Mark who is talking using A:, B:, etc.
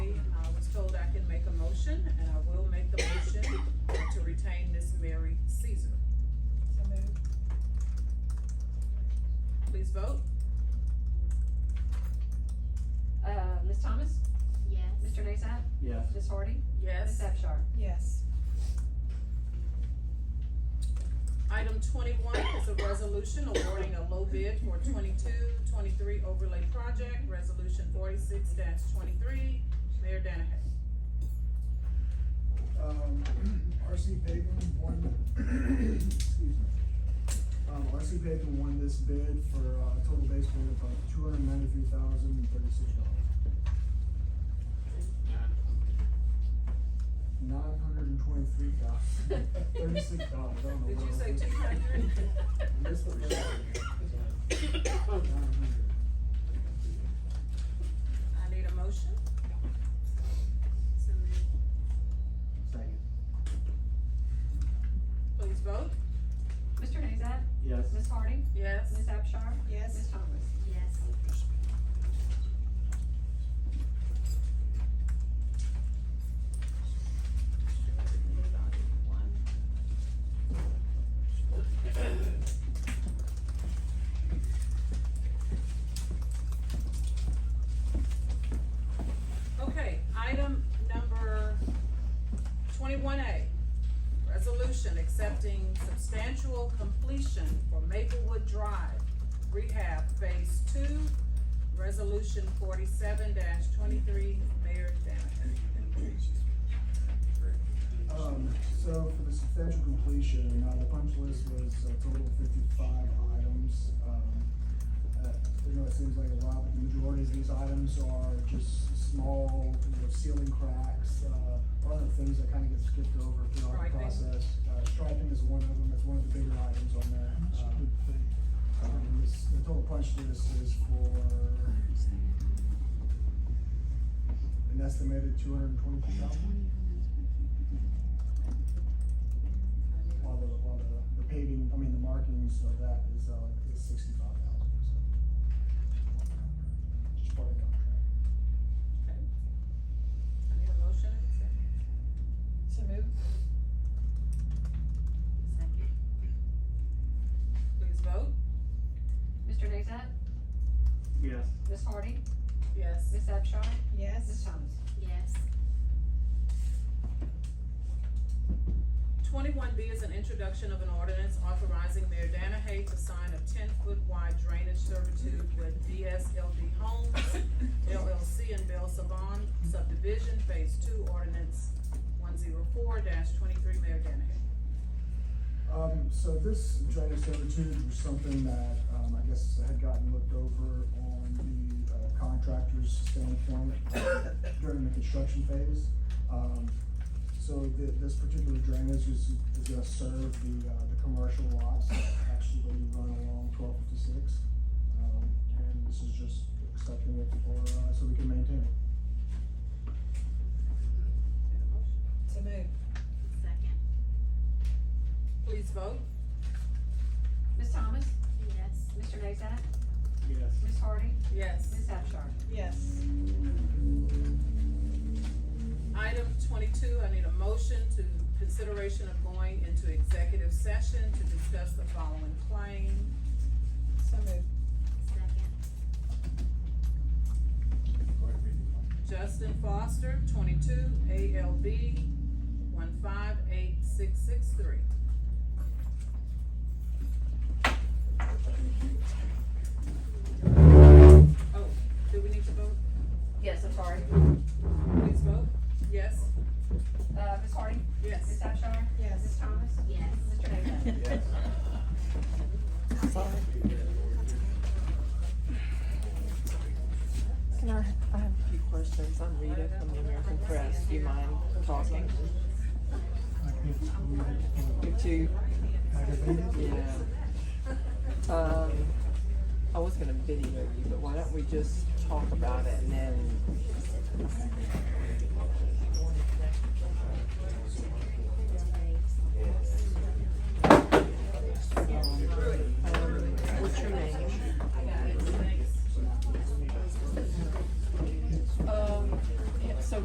A: uh,
B: Uh,
C: Yes.
B: Ms. Hardy? Ms.
A: Yes.
B: Abchar?
D: Yes.
A: Item twenty-one is a resolution awarding a low bid for 22-23 overlay project, resolution forty-six twenty-three. Mayor Danahay.
E: um, RC Paving won, excuse me. Um, RC Paving won this bid for uh, a total base bid of two hundred ninety-three thousand thirty-six dollars. Nine hundred and twenty-three thousand thirty-six dollars, I don't know.
A: Did
E: why
A: you
E: I
A: say
E: was-
A: two hundred?
E: Missed the first one. 900.
A: I need a motion.
C: Second.
A: Please vote.
B: Mr. Nazat?
C: Yes.
B: Ms. Hardy?
A: Yes.
B: Ms. Abchar? Ms.
D: Yes.
B: Thomas?
F: yes,
A: Okay, item number twenty-one A. Resolution accepting substantial completion for Maplewood Drive Rehab Phase Two, Resolution forty-seven twenty-three, Mayor Danahay.
E: Um, so for the substantial completion, uh, the punch list was a total of fifty-five items. Um, uh, you know, it seems like a lot, but the majority of these items are just small, you know, ceiling cracks, uh, other things that kind of get skipped over throughout the
A: Striping.
E: process. Uh, striping is one of them, that's one of the bigger items on there. Um, um, this, the total punch list is for an estimated two hundred and twenty-two thousand. While the, while the, the paving, I mean, the markings of that is, uh, is sixty-five thousand, so. Just part of the contract.
A: Okay. I need a motion and a second.
D: So move.
F: second,
A: Please vote.
B: Mr. Nazat?
C: Yes.
B: Ms. Hardy?
A: Yes.
B: Ms. Abchar? Ms.
D: Yes.
B: Thomas?
F: yes,
A: Twenty-one B is an introduction of an ordinance authorizing Mayor Danahay to sign a ten-foot wide drainage servitude with DSLD Homes LLC in Bell Savon subdivision, phase two, ordinance one zero four twenty-three, Mayor Danahay.
E: Um, so this drainage servitude was something that, um, I guess had gotten looked over on the uh, contractor's standpoint during the construction phase. Um, so thi- this particular drainage is, is gonna serve the, uh, the commercial lots that actually run along twelve fifty-six. Um, and this is just accepting it for, uh, so we can maintain it.
A: Need a motion?
D: So move.
F: second,
A: Please vote.
B: Ms. Thomas?
F: yes,
B: Mr. Nazat?
C: Yes.
B: Ms. Hardy?
A: Yes.
B: Ms. Abchar?
D: Yes.
A: Item twenty-two, I need a motion to consideration of going into executive session to discuss the following claim.
D: So move.
F: second,
A: Justin Foster, twenty-two, ALB, one five eight six six three. Oh, do we need to vote?
B: Yes, I'm sorry.
A: Please vote. Yes,
B: Uh, Ms. Hardy? Ms.
A: yes.
B: Abchar?
D: Yes.
B: Ms. Thomas?
F: yes.
B: Mr. Nazat?
C: Yes.
G: Can I, I have a few questions. I'm Rita from the American Press. Do you mind talking? You too? Yeah. Um, I was gonna video you, but why don't we just talk about it and then